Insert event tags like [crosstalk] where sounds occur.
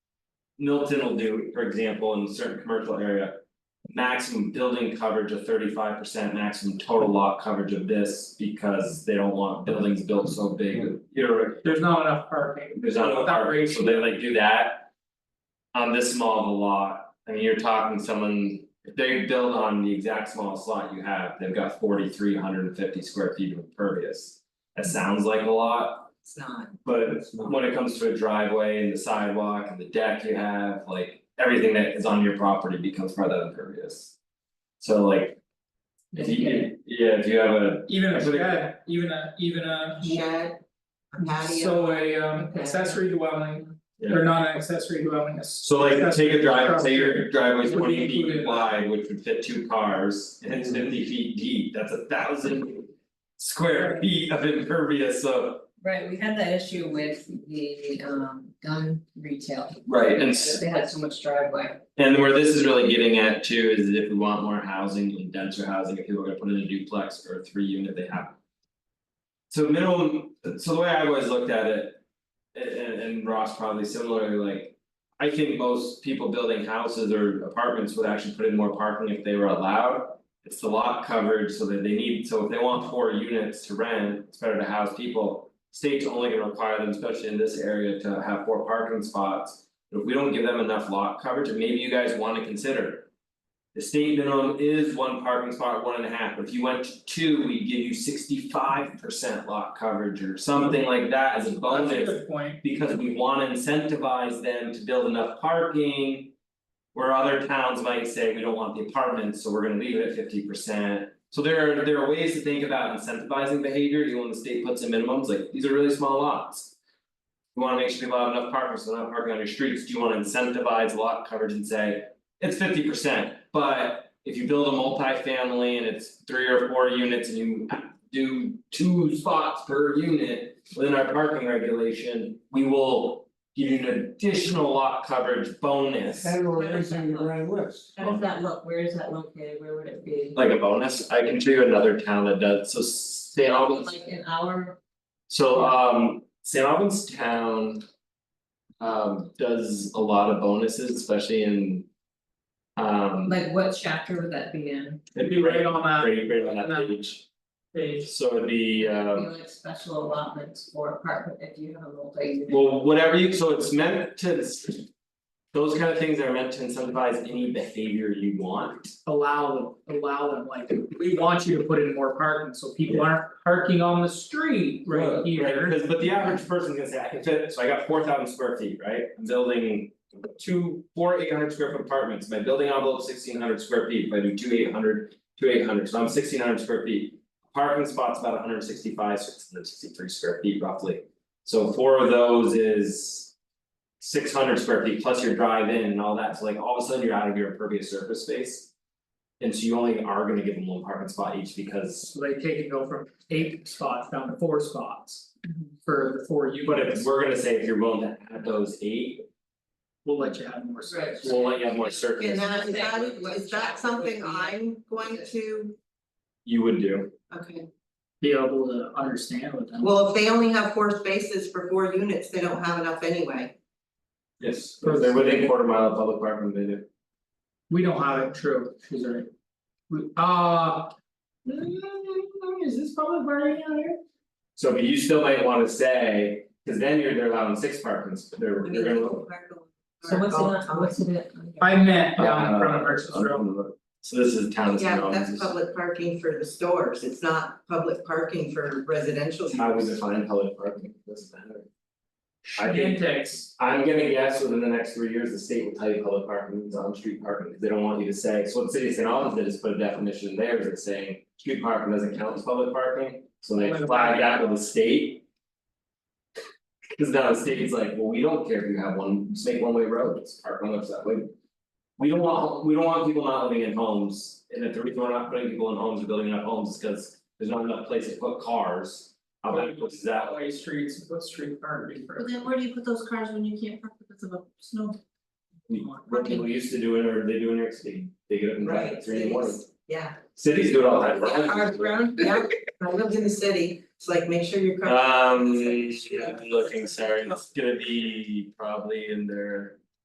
Milton will do, for example, in a certain commercial area. Maximum building coverage of thirty five percent, maximum total lot coverage of this, because they don't want buildings built so big, you're, There's not enough parking. there's not enough Without parking, so ratio. they like do that. On this small of a lot, I mean, you're talking someone, if they build on the exact smallest lot you have, they've got forty three hundred and fifty square feet of impervious. That sounds like a lot, It's not, But when it comes to a driveway and the sidewalk and the deck you have, like everything that is on your property becomes part of that impervious. So like. If you, yeah, if you have a, Even a Actually- shed, even a, even a. shed, a patio, So a um Okay. accessory dwelling, Yeah. or not an accessory dwelling, a. so like take a drive, say Accessory your driveway's Would be twenty feet included. Mm-hmm. wide, which would fit two cars, and it's fifty feet deep, that's a thousand. Square feet of impervious, so. right, we had that issue with the um gun retail, Right, and because they had so much driveway. And where this is really getting at too is if we want more housing and denser housing, if people are gonna put in a duplex or a three unit, they have. So minimum, so the way I always looked at it. a- And and Ross probably similarly like. I think most people building houses or apartments would actually put in more parking if they were allowed. It's the lot coverage so that they need, so if they want four units to rent, it's better to house people. State's only gonna require them, especially in this area, to have four parking spots. If we don't give them enough lot coverage, and maybe you guys wanna consider. The state minimum is one parking spot, one and a half, if you went to two, we'd give you sixty five percent lot coverage or something like that as a bonus. That's a good point, Because we wanna incentivize them to build enough parking. Where other towns might say, we don't want the apartments, so we're gonna leave it at fifty percent. So there are, there are ways to think about incentivizing behavior, even when the state puts in minimums, like, these are really small lots. You wanna make sure people have enough parking, so they're not parking on your streets, do you wanna incentivize lot coverage and say, it's fifty percent, but. If you build a multifamily and it's three or four units and you do two spots per unit within our parking regulation, we will. Give you an additional lot coverage bonus, And we're raising the grand list. How does that look, where is that located, where would it be? like a bonus, I can show you another town that does, so St. Albans, Like an hour, so um St. Albans town. Um does a lot of bonuses, especially in. Um like what chapter would that be in, it'd be right on that right right on that page, page, so it'd be um. be like special allotments or apartment if you have a multi unit. Well, whatever you, so it's meant to. Those kind of things are meant to incentivize any behavior you want. allow them, allow them, like, we want you to put in more parking, so people aren't parking on the street right here. Because but the average person's gonna say, I can fit, so I got four thousand square feet, right? I'm building. Two, four eight hundred square foot apartments, my building envelope sixteen hundred square feet, if I do two eight hundred, two eight hundred, so I'm sixteen hundred square feet. Parking spot's about hundred sixty five, six hundred sixty three square feet roughly. So four of those is. Six hundred square feet plus your drive in and all that, so like all of a sudden you're out of your impervious surface space. And so you only are gonna give them one parking spot each because, So they take and go from eight spots down to four spots Mm-hmm. for the four units. but if we're gonna say if you're willing to add those eight, We'll let you have more space. We'll let you have more And certainty, that, is that, What is that chapter would something be- I'm going to, you would do, okay, Be able to understand what them. well, if they only have four spaces for four units, they don't have enough anyway. yes, if they're within quarter mile of public park, then they do. We don't have it, true, she's right. We, uh. mm, Is this public parking out here? So but you still might wanna say, cause then you're they're allowing six parkings, they're they're gonna. So what's it, on- what's it under? I meant down in front of Merchant's Row, So this is town of Yeah, town, but this that's is public parking for the stores, it's not public parking for residential. how we use. define public parking, doesn't matter. I think, Gentex, I'm gonna guess within the next three years, the state will tell you public parking is on street parking, because they don't want you to say, so what the city of St. Albans did is put a definition in there, that's saying. Street parking doesn't count as public parking, so they flag that with the state. Cause now the state's like, well, we don't care if you have one, just make one way roads, park one website, like. We don't want, we don't want people not living in homes, and if the reason we're not putting people in homes or building enough homes is cause there's not enough place to put cars. Out that places that way, way streets, what street parking for? But then where do you put those cars when you can't park because of a snow? we- what people used to do it, or they do in New York City, they get up and drive Right, at three in the morning. cities, yeah, Cities do it all the time. yeah, our ground, yeah, I lived in the city, it's like, make sure [laughs] you're. Um, I'm looking, sorry, it's gonna be probably in their.